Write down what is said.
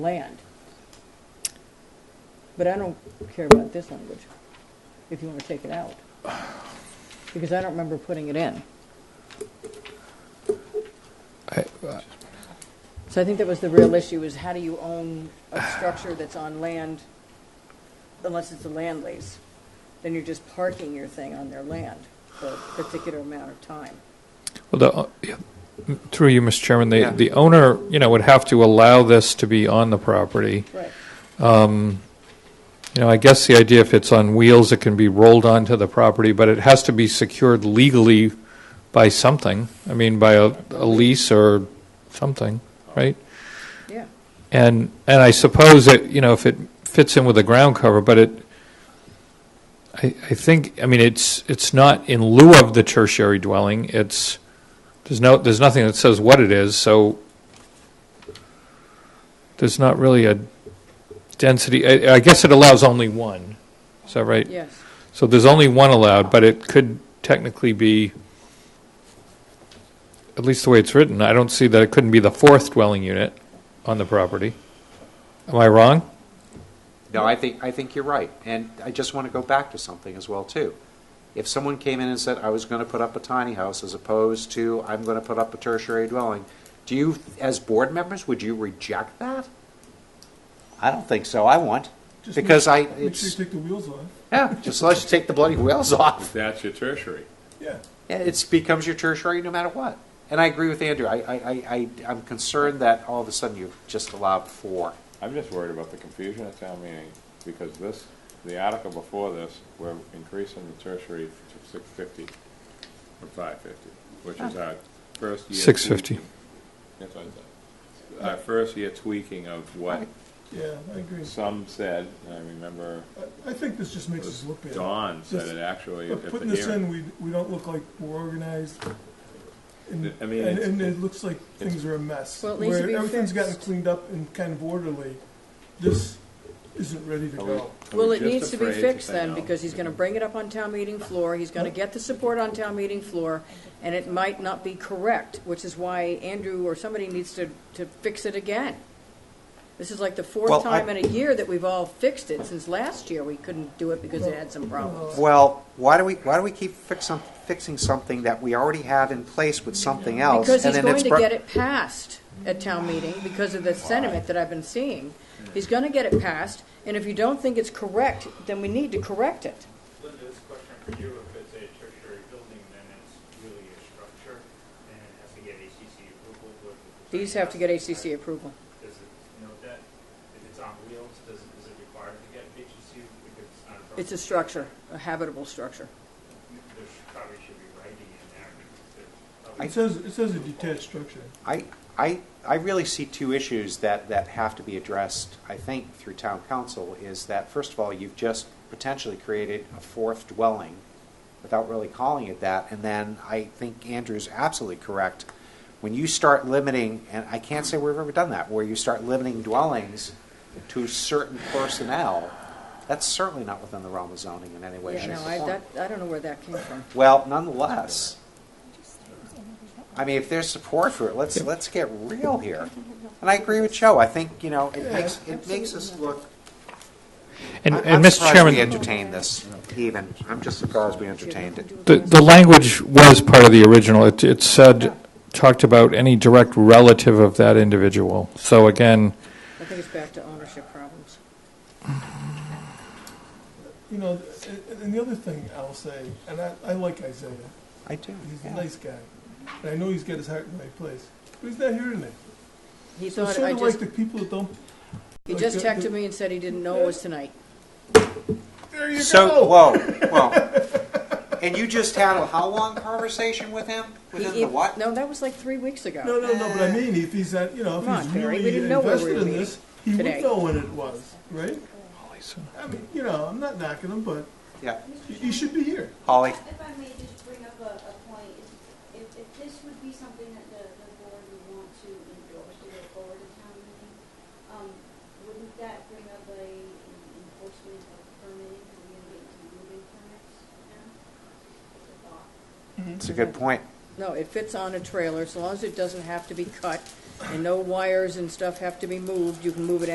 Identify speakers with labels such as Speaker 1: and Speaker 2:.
Speaker 1: land. But I don't care about this language, if you want to take it out. Because I don't remember putting it in. So I think that was the real issue, is how do you own a structure that's on land, unless it's a land lease? Then you're just parking your thing on their land for a particular amount of time.
Speaker 2: Well, the, uh, yeah, m- through you, Mr. Chairman, the,
Speaker 3: Yeah.
Speaker 2: the owner, you know, would have to allow this to be on the property.
Speaker 1: Right.
Speaker 2: You know, I guess the idea, if it's on wheels, it can be rolled onto the property, but it has to be secured legally by something. I mean, by a, a lease or something, right?
Speaker 1: Yeah.
Speaker 2: And, and I suppose that, you know, if it fits in with the ground cover, but it, I, I think, I mean, it's, it's not in lieu of the tertiary dwelling, it's, there's no, there's nothing that says what it is, so there's not really a density, I, I guess it allows only one, is that right?
Speaker 1: Yes.
Speaker 2: So there's only one allowed, but it could technically be, at least the way it's written, I don't see that it couldn't be the fourth dwelling unit on the property. Am I wrong?
Speaker 3: No, I think, I think you're right. And I just want to go back to something as well, too. If someone came in and said, I was going to put up a tiny house as opposed to, I'm going to put up a tertiary dwelling, do you, as board members, would you reject that? I don't think so. I won't.
Speaker 4: Just
Speaker 3: Because I,
Speaker 4: make- Make sure you
Speaker 3: it's,
Speaker 4: take the wheels off.
Speaker 3: yeah, just let you take the bloody wheels off.
Speaker 5: That's your tertiary.
Speaker 4: Yeah.
Speaker 3: It becomes your tertiary no matter what. And I agree with Andrew. I, I, I, I- I'm concerned that all of a sudden you've just allowed four.
Speaker 5: I'm just worried about the confusion at town meeting, because this, the article before this, we're increasing the tertiary to six fifty from five fifty, which is our first year.
Speaker 2: 650.
Speaker 5: tweaking. That's what I said. Our first year tweaking of what
Speaker 4: Yeah, I agree.
Speaker 5: some said, and I remember
Speaker 4: I- I think this just makes us look bad.
Speaker 5: Don said
Speaker 4: This-
Speaker 5: it actually
Speaker 4: But
Speaker 5: at
Speaker 4: putting
Speaker 5: the
Speaker 4: this in,
Speaker 5: hearing.
Speaker 4: we, we don't look like we're organized. And,
Speaker 5: I mean,
Speaker 4: and,
Speaker 5: it's-
Speaker 4: and it looks like things are a mess.
Speaker 1: Well, it needs to
Speaker 4: Where
Speaker 1: be
Speaker 4: everything's gotten
Speaker 1: fixed.
Speaker 4: cleaned up and kind of orderly, this isn't ready to
Speaker 5: Are we-
Speaker 4: go.
Speaker 5: are we
Speaker 1: Well, it
Speaker 5: just
Speaker 1: needs to be
Speaker 5: afraid
Speaker 1: fixed
Speaker 5: say
Speaker 1: then,
Speaker 5: no?
Speaker 1: because he's going to bring it up on town meeting floor, he's going to get the support on town meeting floor, and it might not be correct, which is why Andrew or somebody needs to, to fix it again. This is like the fourth
Speaker 3: Well, I-
Speaker 1: time in a year that we've all fixed it, since last year we couldn't do it because it had some problems.
Speaker 3: Well, why do we, why do we keep fixing, fixing something that we already have in place with something else?
Speaker 1: Because he's
Speaker 3: and then
Speaker 1: going
Speaker 3: it's
Speaker 1: to
Speaker 3: bro-
Speaker 1: get it passed at town meeting because of the sentiment that I've been seeing. He's going to get it passed, and if you don't think it's correct, then we need to correct it.
Speaker 6: Linda, this question for you, if it's a tertiary building, then it's really a structure, and it has to get ACC approval. what-
Speaker 1: These have to get ACC approval.
Speaker 6: Does it note that? If it's on wheels, does, it- is it required to get ACC if it's not a building?
Speaker 1: It's a structure, a habitable structure.
Speaker 6: There should- probably should be writing in there. because there's probably-
Speaker 3: I-
Speaker 4: It says, it says a detached structure.
Speaker 3: I, I, I really see two issues that, that have to be addressed, I think, through town council, is that, first of all, you've just potentially created a fourth dwelling without really calling it that, and then I think Andrew's absolutely correct. When you start limiting, and I can't say we've ever done that, where you start limiting dwellings to certain personnel, that's certainly not within the realm of zoning in any way,
Speaker 1: Yeah,
Speaker 3: shape, or
Speaker 1: no, I,
Speaker 3: form.
Speaker 1: that, I don't know where that came from.
Speaker 3: Well, nonetheless, I mean, if there's support for it, let's, let's get real here. And I agree with Joe, I think, you know, it makes, it makes us look.
Speaker 2: And,
Speaker 3: I-
Speaker 2: and
Speaker 3: I'm
Speaker 2: Mr.
Speaker 3: surprised
Speaker 2: Chairman.
Speaker 3: we entertained this even, I'm just surprised we entertained it.
Speaker 2: The, the language was part of the original. It, it said, talked about any direct relative of that individual. So again,
Speaker 1: I think it's back to ownership problems.
Speaker 4: You know, and, and the other thing I'll say, and I, I like Isaiah,
Speaker 3: I do,
Speaker 4: he's a
Speaker 3: yeah.
Speaker 4: nice guy. And I know he's got his heart in the right place, but he's not here tonight.
Speaker 1: He
Speaker 4: So
Speaker 1: thought,
Speaker 4: sort
Speaker 1: I
Speaker 4: of like
Speaker 1: just,
Speaker 4: the people that don't,
Speaker 1: he
Speaker 4: like
Speaker 1: just
Speaker 4: the-
Speaker 1: texted
Speaker 4: the-
Speaker 1: me and said he didn't know it was tonight.
Speaker 4: there you go.
Speaker 3: So, whoa, whoa. And you just had a how long conversation with him? With
Speaker 1: He-
Speaker 3: him
Speaker 1: he-
Speaker 3: the what?
Speaker 1: No, that was like three weeks ago.
Speaker 4: No, no, no, but I mean, if he's, at- you know,
Speaker 1: Come
Speaker 4: if
Speaker 1: on,
Speaker 4: he's
Speaker 1: Barry, we
Speaker 4: really
Speaker 1: didn't know we were
Speaker 4: invested in
Speaker 1: meeting
Speaker 4: this, he would
Speaker 1: today.
Speaker 4: know when it was, right? I mean, you know, I'm not knocking him, but
Speaker 3: Yeah,
Speaker 4: he- he should be here.
Speaker 3: Holly,
Speaker 7: If I may just bring up a, a point, if- if, if this would be something that the, the board would want to endorse to go forward to town meeting, um, wouldn't that bring up a an enforcement of permitting, because we're gonna get into moving permits now? It's a thought.
Speaker 3: it's a good point.
Speaker 1: No, it fits on a trailer, so long as it doesn't have to be cut, and no wires and stuff have to be moved, you can move it